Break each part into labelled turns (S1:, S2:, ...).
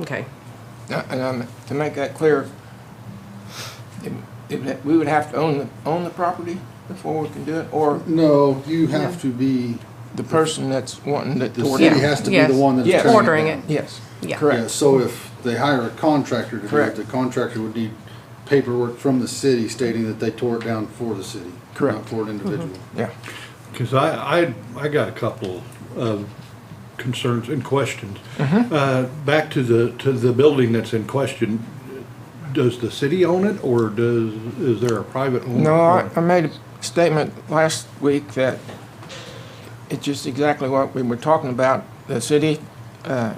S1: Okay,
S2: Uh, And um, to make that clear, it- it- we would have to own, the own the property before we can do it, or
S3: No, you have to be,
S2: the person that's wanting to
S3: the
S2: tore
S3: city
S2: down?
S3: has to be
S1: Yes.
S3: the one that's
S2: Yes.
S3: tearing
S1: Ordering
S3: down.
S1: it.
S2: Yes,
S1: yeah.
S3: Yeah,
S2: correct.
S3: so if they hire a contractor to do it,
S2: Correct.
S3: the contractor would need paperwork from the city stating that they tore it down for the city.
S2: Correct.
S3: Not for
S1: Mm-hmm.
S3: an individual.
S2: Yeah.
S4: Because I, I, I got a couple of concerns and questions.
S2: Mm-hmm.
S4: Uh, Back to the, to the building that's in question, does the city own it, or does, is there a private owner?
S2: No, I, I made a statement last week that it's just exactly what we were talking about. The city uh,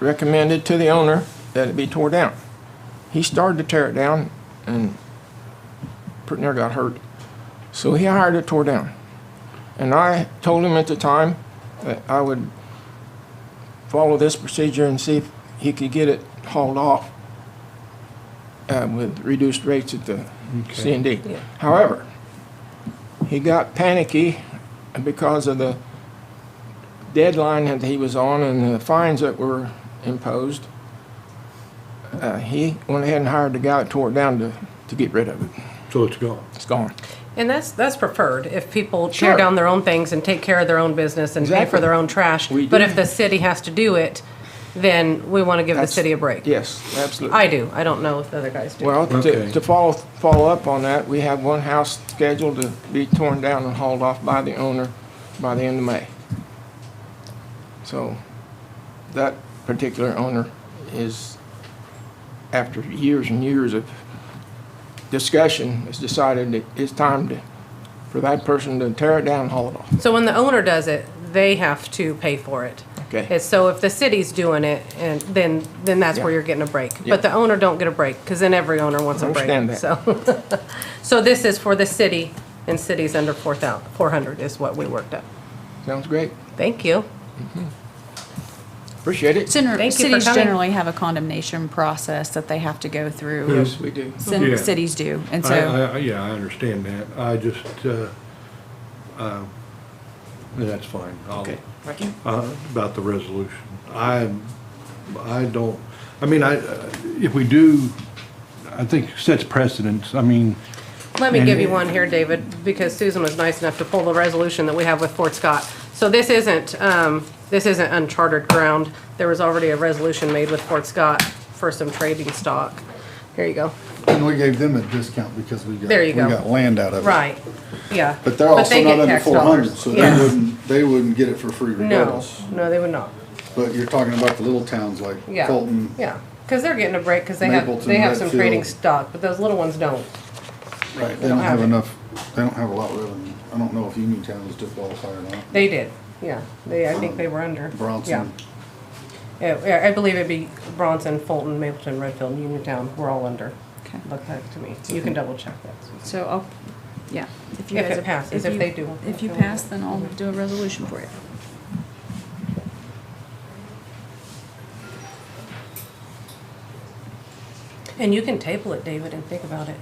S2: recommended to the owner that it be tore down. He started to tear it down and pretty near got hurt. So he hired it tore down. And I told him at the time that I would follow this procedure and see if he could get it hauled off uh, with reduced rates at the C and D.
S1: Yeah.
S2: However, he got panicky because of the deadline that he was on and the fines that were imposed. Uh, He went ahead and hired the guy that tore it down to, to get rid of it.
S4: So it's gone.
S2: It's gone.
S1: And that's, that's preferred, if people tear
S2: Sure.
S1: down their own things and take care of their own business and pay for
S2: Exactly.
S1: their own trash.
S2: We
S1: But
S2: do.
S1: if the city has to do it, then we want to give the
S2: That's-
S1: city a break.
S2: Yes, absolutely.
S1: I do, I don't know if the other guys do.
S2: Well, to,
S4: Okay.
S2: to follow, follow up on that, we have one house scheduled to be torn down and hauled off by the owner by the end of May. So that particular owner is, after years and years of discussion, has decided that it's time to, for that person to tear it down and haul it off.
S1: So when the owner does it, they have to pay for it.
S2: Okay.
S1: And so if the city's doing it, and then, then that's where
S2: Yeah.
S1: you're getting a break.
S2: Yeah.
S1: But the owner don't get a break, because then every owner wants a break.
S2: Understand that.
S1: So, so this is for the city, and cities under four thou, four hundred is what we worked up.
S2: Sounds great.
S1: Thank you.
S2: Appreciate it.
S5: Gener-
S1: Thank you for
S5: cities
S1: coming.
S5: generally have a condemnation process that they have to go through.
S2: Yes, we do.
S5: Cin-
S4: Yeah.
S5: Cities do, and
S4: I,
S5: so
S4: I, yeah, I understand that. I just, uh, uh, that's fine. I'll-
S2: Okay. Thank you.
S4: uh, about the resolution. I, I don't, I mean, I, if we do, I think sets precedence. I mean,
S1: Let me give you
S4: And-
S1: one here, David, because Susan was nice enough to pull the resolution that we have with Fort Scott. So this isn't, um, this isn't uncharted ground. There was already a resolution made with Fort Scott for some trading stock. Here you go.
S3: And we gave them a discount because we got,
S1: There you
S3: we
S1: go.
S3: got land out of it.
S1: Right, yeah.
S3: But they're also
S1: they
S3: not
S1: get
S3: under
S1: tax
S3: four hundred,
S1: dollars.
S3: so they
S1: Yeah.
S3: wouldn't, they wouldn't get it for free
S1: No,
S3: regardless.
S1: no, they would not,
S3: But you're talking about the little towns like
S1: yeah.
S3: Fulton.
S1: Yeah, because they're getting a break, because they have,
S3: Mapleton,
S1: they have some trading
S3: Redfield.
S1: stock, but those little ones don't.
S3: Right, they
S1: don't
S3: don't
S1: have
S3: have
S1: it.
S3: enough, they don't have a lot of revenue. I don't know if Uniontown was to qualify or not.
S1: They did, yeah. They, I think they were under. Yeah.
S3: Bronson,
S1: Yeah, yeah, I believe it'd be Bronson, Fulton, Mapleton, Redfield, and Uniontown, we're all under.
S5: Okay.
S1: Look back to me, you can double check that.
S5: so I'll yeah. If
S1: If
S5: guys
S1: it
S5: are-
S1: passes, if
S5: you-
S1: they do.
S5: if you pass, then I'll do a resolution for you.
S1: And you can table it, David, and think about it.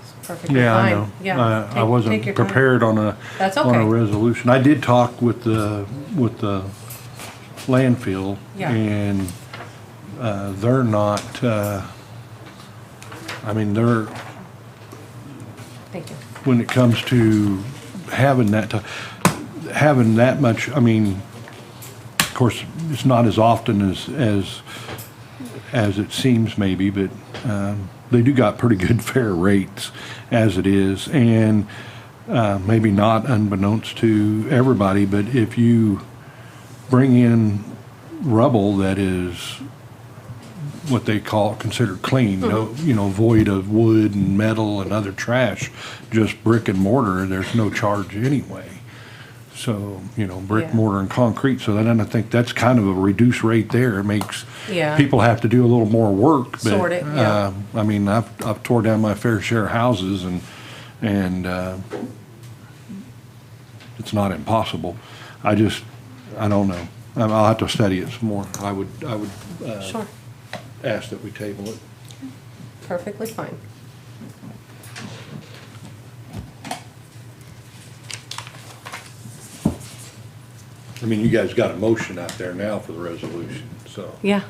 S1: It's perfectly
S4: yeah, I
S1: fine.
S4: know.
S1: Yeah,
S4: I, I
S1: take- take your
S4: wasn't
S1: time.
S4: prepared on a,
S1: That's
S4: on a
S1: okay.
S4: resolution. I did talk with the, with the landfill.
S1: Yeah.
S4: And, uh, they're not, uh, I mean, they're,
S1: Thank you.
S4: when it comes to having that, to- having that much, I mean, of course, it's not as often as, as, as it seems maybe, but um, they do got pretty good fair rates as it is. And uh, maybe not unbeknownst to everybody, but if you bring in rubble that is what they call considered clean, no, you know, void of wood and metal and other trash, just brick and mortar. There's no charge anyway. So you know, brick,
S1: Yeah.
S4: mortar, and concrete. So then I think that's kind of a reduced rate there. It makes
S1: Yeah.
S4: people have to do a little more work. But,
S1: Sort it, yeah.
S4: uh, I mean, I've I've tore down my fair share of houses and and. Uh, it's not impossible. I just, I don't know. I- I'll have to study it some more. I would, I would uh,
S1: Sure,
S4: ask that we table it.
S1: perfectly fine.
S4: I mean, you guys got a motion out there now for the resolution, so.
S1: Yeah.